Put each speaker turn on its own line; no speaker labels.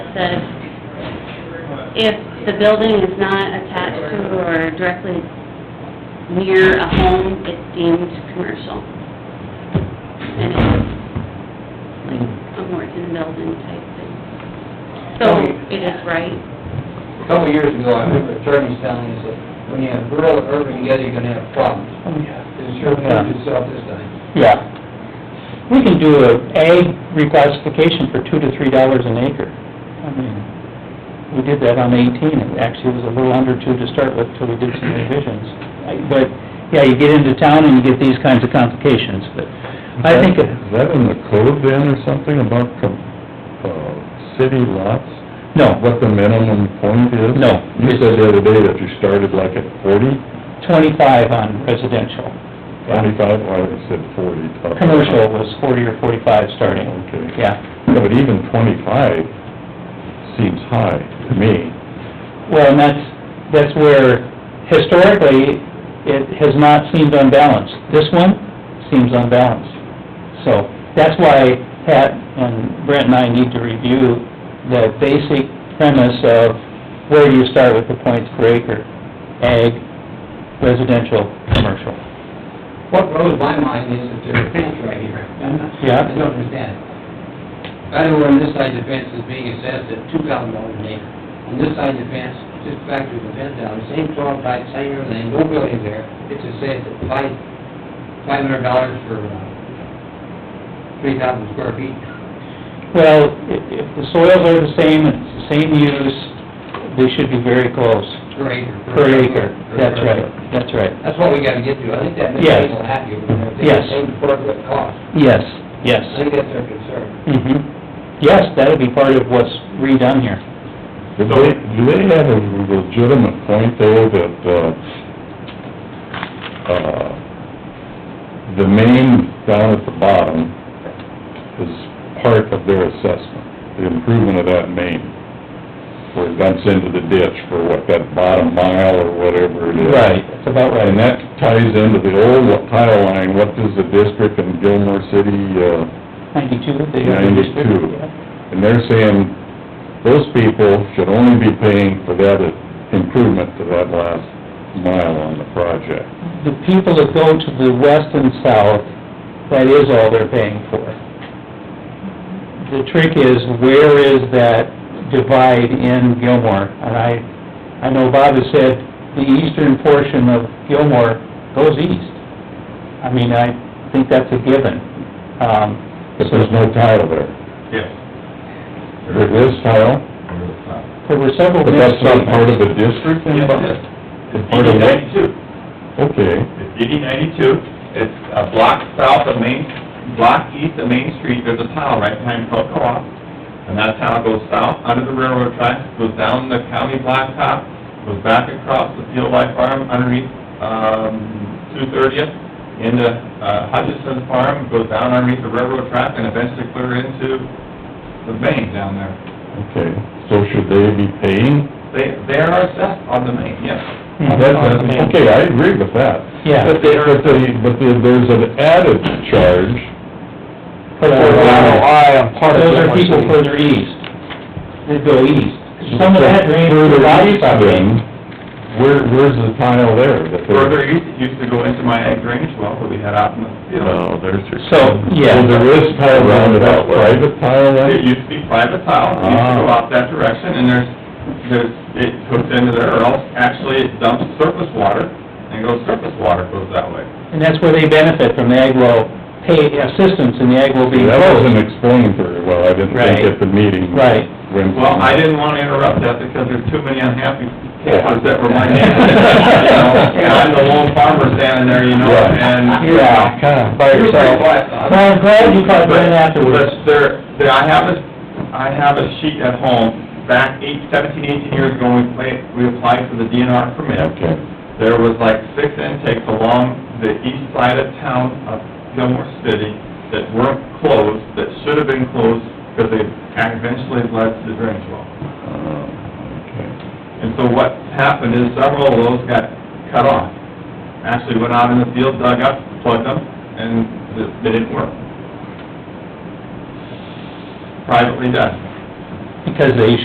says, if the building is not attached to or directly near a home, it's deemed commercial. And it's like a Morton building type thing. So it is right.
A couple of years ago, I remember attorneys telling us that when you have rural and urban together, you're gonna have problems.
Oh, yeah.
It sure proved itself this time.
Yeah. We can do a ag reclassification for two to three dollars an acre. I mean, we did that on eighteen, it actually was a little under two to start with till we did some revisions. I- But, yeah, you get into town and you get these kinds of complications, but I think, it-
Is that in the code then or something about, com- uh, city lots?
no,
What the minimum point is?
No.
You said the other day that you started like at forty,
twenty-five on residential.
twenty-five, well, I said forty. uh,
Commercial was forty or forty-five starting.
Okay.
Yeah,
Yeah, But even twenty-five seems high to me.
well, and that's, that's where historically, it has not seemed unbalanced. This one seems unbalanced. So, that's why Pat and Brent and I need to review the basic premise of where you start with the points per acre, ag, residential, commercial.
What blows my mind is that there's a fence right here.
Yeah.
I don't understand. I know where on this side of the fence is being assessed at two thousand dollars an acre. On this side of the fence, just back to the fence down, same twelve type, same everything, no building there. It's assessed at five, five hundred dollars for, uh, three thousand square feet.
Well, if, if the soils are the same, and it's the same use, they should be very close,
Per acre.
per acre. That's right, that's right.
That's what we gotta get to, I think that makes
Yes.
people happy over there, they
Yes.
pay for what it costs,
Yes, yes.
I think that's their concern.
hmm Yes, that'll be part of what's redone here.
Do they, do they have a legitimate point there that, uh, uh, the main down at the bottom is part of their assessment, the improvement of that main, where it dumps into the ditch for what, that bottom mile or whatever it is?
That's about
And
right.
that ties into the old tile line, what does the district in Gilmore City, uh,
Ninety-two, they...
92. and they're saying those people should only be paying for that improvement to that last mile on the project.
The people that go to the west and south, that is all they're paying for. The trick is, where is that divide in Gilmore? And I, I know Bob has said, the eastern portion of Gilmore goes east. I mean, I think that's a given. Um,
But there's no tile there.
Yes.
There is tile,
there were several...
but that's not
misstatements.
part of the district
Yes, it is.
anybody?
It's
Part of
DD
what?
ninety-two.
Okay,
It's DD ninety-two. It's a block south of Main, block east of Main Street, there's a tile right behind Pro Co-op. And that tile goes south under the railroad tracks, goes down the county blacktop, goes back across the Field Life Farm underneath, um, two thirtieth, into uh, Hutchinson Farm, goes down underneath the railroad track and eventually clear into the main down there.
okay, so should they be paying?
They, they are assessed on the main, yes.
Mhm.
That- that's- Okay, I agree with that.
Yeah.
But they, but they, but they- there's an added charge.
Those are people further east, they go east.
Mm-hmm.
Some of that drains to
Further
the
east then, Where, where's the tile there? that they're-
Further east, it used to go into my ag drainage well that we had out in the field.
No, Oh, there's your...
So, yeah.
So there is tile roundabout, private tile
It
line?
used to be private tile, it used to
Ah.
go out that direction, and there's, there's, it hooks into there, or else actually it dumps surface water, and goes surface water goes that way.
And that's where they benefit from the agro pay assistance and the agro being
That wasn't
closed.
explained very well, I didn't think at the meeting.
Right.
When-
Well, I didn't wanna interrupt that because there's too many unhappy campers that were my neighbors. You know, And I'm the lone farmer standing there, you know,
Right.
and, you know,
Yeah, kinda by
You're pretty
yourself.
quiet, Bob.
Well, I'm glad you caught Brent afterwards.
But there, there, I have a, I have a sheet at home, back eight, seventeen, eighteen years ago, when we played, we applied for the DNR permit.
Okay,
There was like six intakes along the east side of town of Gilmore City that weren't closed, that should have been closed, because they eventually led to the drainage well.
uh,
And so what happened is several of those got cut off. Actually went out in the field, dug up, plugged them, and th- they didn't work. Privately done.
Because they